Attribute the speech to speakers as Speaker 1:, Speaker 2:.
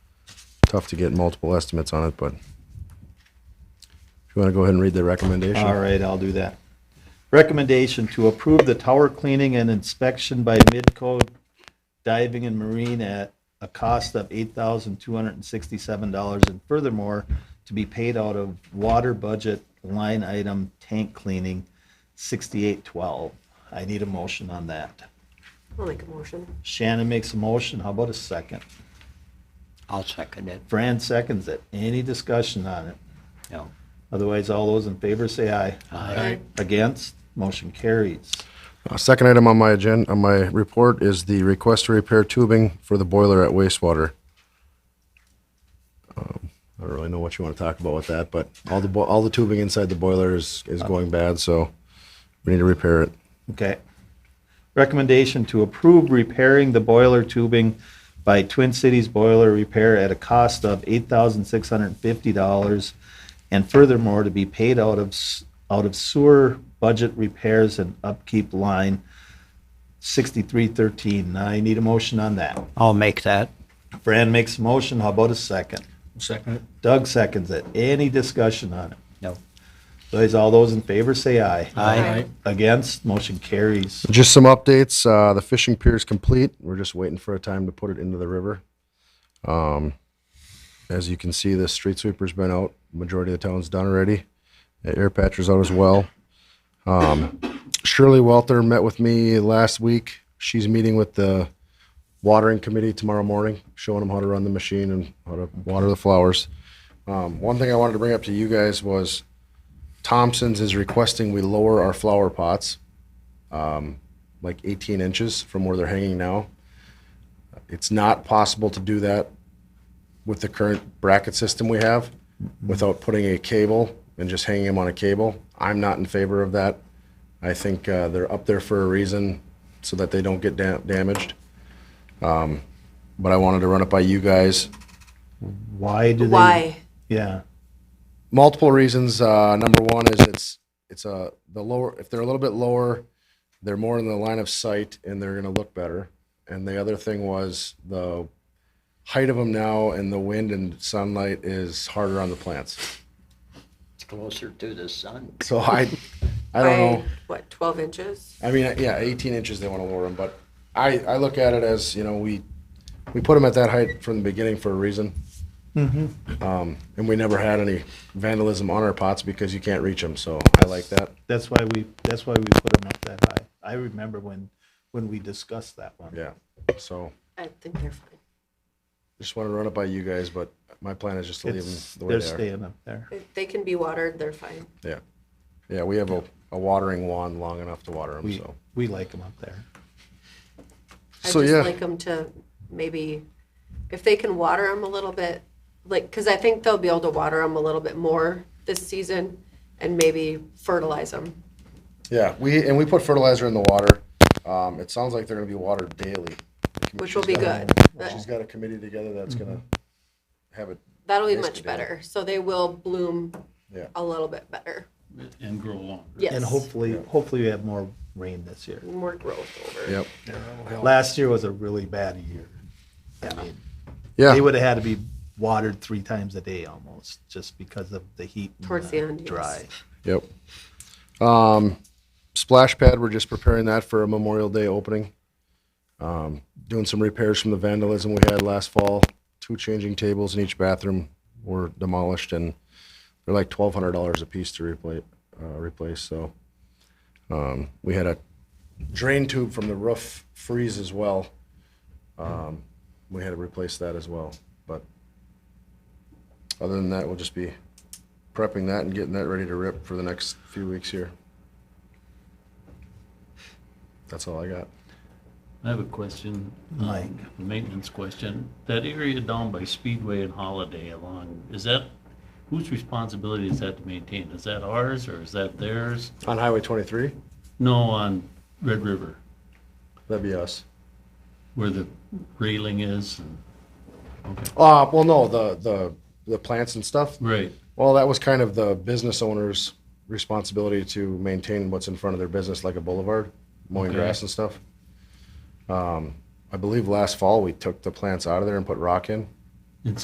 Speaker 1: tough to get multiple estimates on it, but if you want to go ahead and read the recommendation.
Speaker 2: All right, I'll do that. Recommendation to approve the tower cleaning and inspection by Midco Diving and Marine at a cost of eight thousand two hundred and sixty-seven dollars and furthermore, to be paid out of water budget line item tank cleaning sixty-eight twelve. I need a motion on that.
Speaker 3: I'll make a motion.
Speaker 2: Shannon makes a motion. How about a second?
Speaker 4: I'll second it.
Speaker 2: Fran seconds it. Any discussion on it?
Speaker 4: No.
Speaker 2: Otherwise, all those in favor say aye.
Speaker 3: Aye.
Speaker 2: Against? Motion carries.
Speaker 1: Uh, Second item on my agenda, on my report is the request to repair tubing for the boiler at wastewater. Um, I don't really know what you want to talk about with that, but all the, bo- all the tubing inside the boiler is,
Speaker 2: Uh,
Speaker 1: is going bad, so we need to repair it.
Speaker 2: Okay. Recommendation to approve repairing the boiler tubing by Twin Cities Boiler Repair at a cost of eight thousand six hundred and fifty dollars, and furthermore, to be paid out of, s- out of sewer budget repairs and upkeep line sixty-three thirteen. Now, I need a motion on that.
Speaker 4: I'll make that.
Speaker 2: Fran makes a motion, how about a second?
Speaker 5: Second it.
Speaker 2: Doug seconds it. Any discussion on it?
Speaker 4: No.
Speaker 2: Those, all those in favor say aye.
Speaker 4: Aye.
Speaker 2: Against, motion carries.
Speaker 1: Just some updates. Uh, the fishing pier is complete. We're just waiting for a time to put it into the river. Um, as you can see, the street sweeper's been out. Majority of the town's done already. The air patcher's out as well. Um, Shirley Welter met with me last week. She's meeting with the watering committee tomorrow morning, showing them how to run the machine and how to water the flowers. Um, one thing I wanted to bring up to you guys was Thompson's is requesting we lower our flower pots like 18 inches from where they're hanging now. It's not possible to do that with the current bracket system we have without putting a cable and just hanging them on a cable. I'm not in favor of that. I think uh, they're up there for a reason so that they don't get da- damaged. Um, but I wanted to run it by you guys.
Speaker 2: Why do they?
Speaker 3: Why?
Speaker 2: Yeah.
Speaker 1: multiple reasons. Uh, number one is it's it's a the lower if they're a little bit lower, they're more in the line of sight and they're going to look better. And the other thing was the height of them now and the wind and sunlight is harder on the plants.
Speaker 4: It's closer to the sun.
Speaker 1: So I I don't know.
Speaker 3: By, What, 12 inches?
Speaker 1: I mean, yeah, 18 inches they want to lower them, but I I look at it as you know we we put them at that height from the beginning for a reason. Um, and we never had any vandalism on our pots because you can't reach them. So I like that.
Speaker 2: That's why we, that's why we put them up that high. I remember when, when we discussed that one.
Speaker 1: Yeah. So
Speaker 3: I think they're fine.
Speaker 1: just want to run it by you guys, but my plan is just to leave them
Speaker 2: It's,
Speaker 1: the way
Speaker 2: they're
Speaker 1: they are.
Speaker 2: staying up there.
Speaker 3: If they can be watered, they're fine.
Speaker 1: Yeah. Yeah, we have a, a watering wand long enough to water them,
Speaker 2: We,
Speaker 1: so.
Speaker 2: we like them up there.
Speaker 3: I
Speaker 1: So,
Speaker 3: just
Speaker 1: yeah.
Speaker 3: like them to maybe, if they can water them a little bit, like, because I think they'll be able to water them a little bit more this season and maybe fertilize them.
Speaker 1: Yeah, we, and we put fertilizer in the water. Um, it sounds like they're gonna be watered daily. The com-
Speaker 3: Which will
Speaker 1: she's
Speaker 3: be
Speaker 1: got-
Speaker 3: good.
Speaker 1: She's got a committee together that's gonna
Speaker 2: Mm-hmm.
Speaker 1: have it,
Speaker 3: That'll be
Speaker 1: Yes,
Speaker 3: much
Speaker 1: they do.
Speaker 3: better. So they will bloom
Speaker 1: yeah.
Speaker 3: a little bit better.
Speaker 5: And grow longer.
Speaker 3: Yes.
Speaker 2: And hopefully, hopefully we have more rain this year.
Speaker 3: More growth over.
Speaker 1: Yep.
Speaker 2: Last year was a really bad year. I mean,
Speaker 1: Yeah.
Speaker 2: they would have had to be watered three times a day almost, just because of the heat. and
Speaker 3: Towards the end, yes.
Speaker 2: Dry.
Speaker 1: Yep. Um, splash pad, we're just preparing that for a Memorial Day opening. Um, doing some repairs from the vandalism we had last fall. Two changing tables in each bathroom were demolished, and they're like twelve hundred dollars a piece to replace. Uh, replace. So um, we had a drain tube from the roof freeze as well. Um, we had to replace that as well. But other than that, we'll just be prepping that and getting that ready to rip for the next few weeks here. That's all I got.
Speaker 5: I have a question. um,
Speaker 2: Mike.
Speaker 5: a Maintenance question. That area down by Speedway and Holiday along, is that, whose responsibility is that to maintain? Is that ours or is that theirs?
Speaker 1: On Highway 23,
Speaker 5: No, on Red River,
Speaker 1: that'd be us.
Speaker 5: where the railing is and,
Speaker 1: Uh, well, no, the, the, the plants and stuff.
Speaker 5: right.
Speaker 1: Well, that was kind of the business owner's responsibility to maintain what's in front of their business, like a boulevard, mowing
Speaker 5: Okay.
Speaker 1: grass and stuff. Um, I believe last fall we took the plants out of there and put rock in.